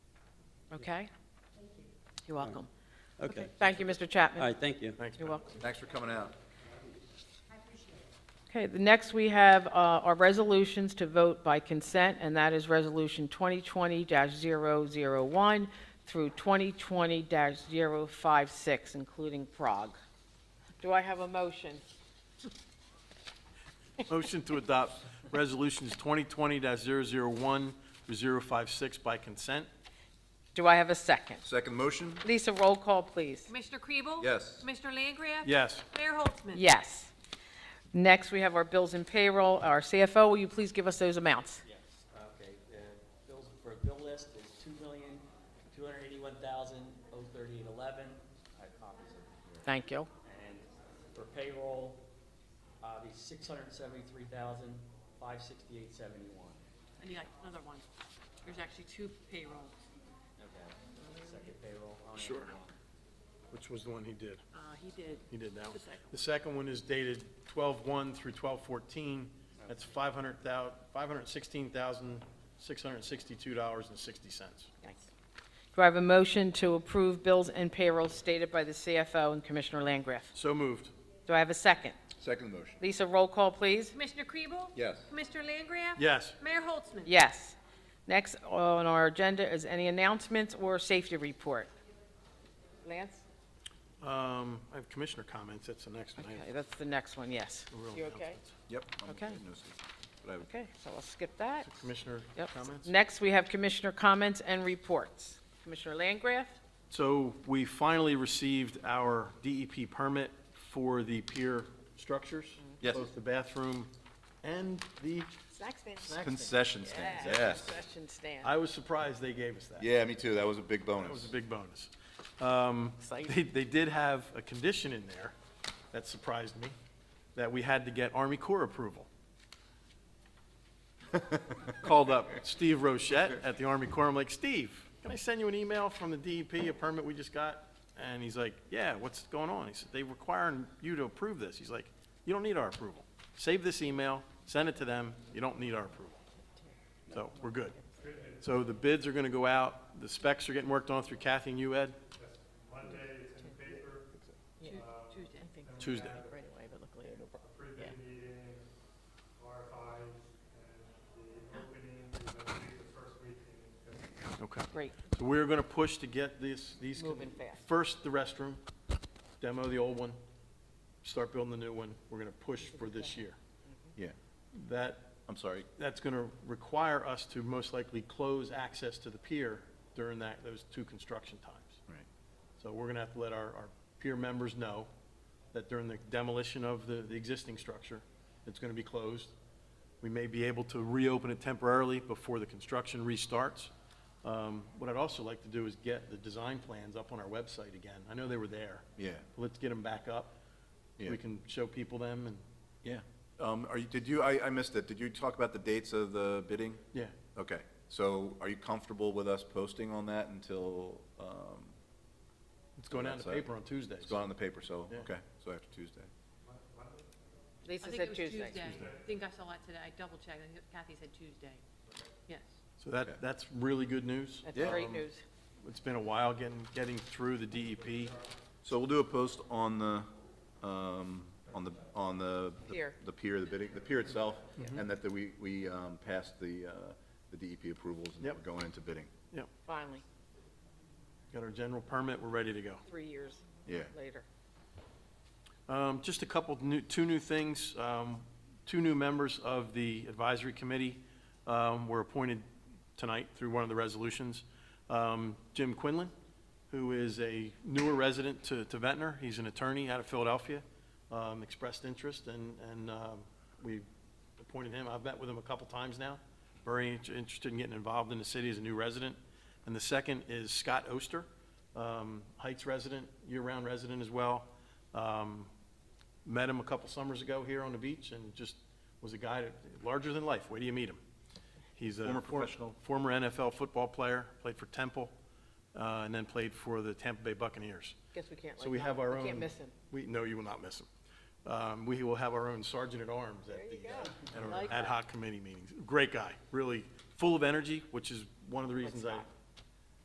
Okay? You're welcome. Okay. Thank you, Mr. Chapman. All right, thank you. Thanks, You're Pat. welcome. Thanks for coming out. Okay, the next we have uh, are resolutions to vote by consent, and that is Resolution 2020-001 through 2020-056, including Prague. Do I have a motion? Motion to adopt resolutions 2020-001 through 056 by consent? Do I have a second? Second motion? Lisa, roll call, please. Commissioner Kriebel? Yes. Commissioner Langria? Yes. Mayor Holtzman? Yes. Next, we have our bills and payroll. Our CFO, will you please give us those amounts? Yes, okay, the bills, for bill list is two million, two hundred eighty-one thousand, oh thirty-eight eleven, I have copies of it here. Thank you. And for payroll, uh, the six hundred seventy-three thousand, five sixty-eight seventy-one. I need like, another one. There's actually two payrolls. Okay. Second payroll. I only have Sure. one. Which was the one he did. Uh, he did. He did that one. The second. The second one is dated 12/1 through 12/14. That's 500,000 $516,662.60. Do I have a motion to approve bills and payroll stated by the CFO and Commissioner Landgraf? So moved. Do I have a second? Second motion? Lisa, roll call, please. Commissioner Kriebel? Yes. Commissioner Langria? Yes. Mayor Holtzman? Yes. Next on our agenda is any announcements or safety report. Lance? Um, I have commissioner comments. That's the next one. I have Okay, that's the next one, yes. real You okay? announcements. Yep. I'm Okay. no second. But I would- Okay, so I'll skip that. Commissioner Yep. comments? Next, we have Commissioner comments and reports. Commissioner Landgraf? So we finally received our DEP permit for the pier structures. Yes. Both the bathroom and the, Concession stands, yes. Concession stand. I was surprised they gave us that. Yeah, me too. That was a big That was a bonus. big bonus. Um, Exciting. They, they did have a condition in there that surprised me, that we had to get Army Corps approval. Called up Steve Rochette at the Army Corps, I'm like, Steve, can I send you an email from the DEP, a permit we just got? And he's like, yeah, what's going on? He said, they requiring you to approve this. He's like, you don't need our approval. Save this email, send it to them, you don't need our approval. So, we're good. So the bids are gonna go out, the specs are getting worked on through Kathy and you, Ed, Monday, it's in the paper, Tuesday. Tuesday. Right away, but look later. pre-bid meeting, RFIs, and the opening is gonna be the first week in February. Okay. Great. So we're gonna push to get these, these. Moving fast. First, the restroom, demo the old one, start building the new one. We're gonna push for this year. Yeah, That, I'm sorry. that's gonna require us to most likely close access to the pier during that, those two construction times. Right. So we're gonna have to let our, our peer members know that during the demolition of the, the existing structure, it's gonna be closed. We may be able to reopen it temporarily before the construction restarts. Um, what I'd also like to do is get the design plans up on our website again. I know they were there. Yeah. Let's get them back up. Yeah. We can show people them and, Yeah. Um, are you, did you, I, I missed it. Did you talk about the dates of the bidding? yeah. Okay, so are you comfortable with us posting on that until, um, It's going out in the Website. paper on Tuesdays. it's gone in the paper, so, Yeah. okay, so after Tuesday. I Lisa think it said was Tuesday. Tuesday. I think I saw that today. I double checked. I think Kathy said Tuesday. Yes. So Okay. that, that's really good news. That's Yeah. great news. It's been a while getting, getting through the E DEP. So we'll do a post on the, um, on the, on the. the- Pier. The pier, the bidding, the pier itself, and that the- we, we, um, passed the, uh, the DEP approvals and we're Yep. going into bidding. Yep, Finally, got our general permit, we're ready to go. three years Yeah. later. Um, Just a couple, new- two new things. Um, Two new members of the advisory committee um, were appointed tonight through one of the resolutions. Um, Jim Quinlan, who is a newer resident to to Ventnor, he's an attorney out of Philadelphia, um, expressed interest, and and um, we appointed him. I've met with him a couple times now, very int- interested in getting involved in the city as a new resident. And the second is Scott Oster, um, Heights resident, year-round resident as well. Um, Met him a couple summers ago here on the beach and just was a guy that, larger than life. Where do you meet him? He's a. Former for- professional. Former NFL football player, played for Temple, uh, and then played for the Tampa Bay Buccaneers. Guess we can't, So we have like, our we own. can't miss him. We, no, you will not miss him. Um, we will have our own sergeant at arms at the, uh, at our ad hoc committee meetings. Great guy, really full of energy, which is one of the reasons I